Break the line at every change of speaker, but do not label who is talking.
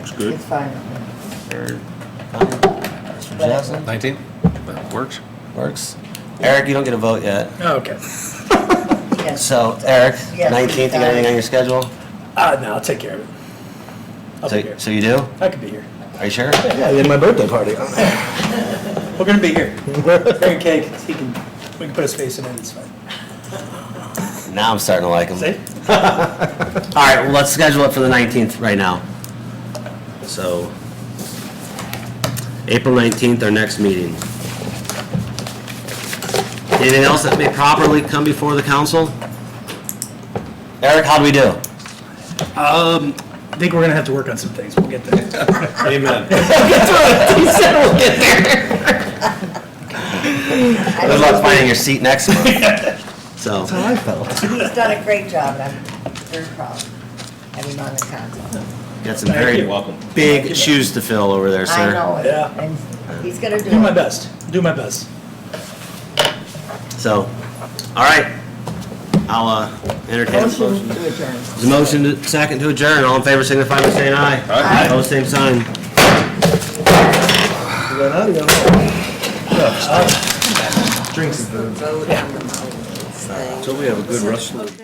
Looks good.
It's fine.
Or
Mr. Johnson?
19? That works.
Works. Eric, you don't get a vote yet.
Oh, Okay.
Yes.
So Eric,
Yes.
19th, you got anything on your schedule?
Uh, no, I'll take care of it. I'll be
So
here.
so you do?
I could be here.
Are you sure?
Yeah, in my birthday party.
We're gonna be here. Frank Cake, he can, we can put his face in it, it's fine.
Now I'm starting to like him.
See?
All right, well, let's schedule it for the 19th right now. So, April 19th, our next meeting. Anything else that may properly come before the council? Eric, how do we do?
I think we're gonna have to work on some things, we'll get there.
I
Good luck finding your seat next month. So,
That's how I felt.
think He's done a great job, and I'm very proud of him on the council.
got some very
welcome.
big shoes to fill over there,
I
sir.
know it,
Yeah.
and he's gonna do it.
Do my best, do my best.
So, all right, I'll uh, entertain. a
Motion to adjourn.
There's a motion, to- second to adjourn. All in favor, signify by saying aye.
Aye.
Opposed, same sign.
Drinks.
So we have a good rest of the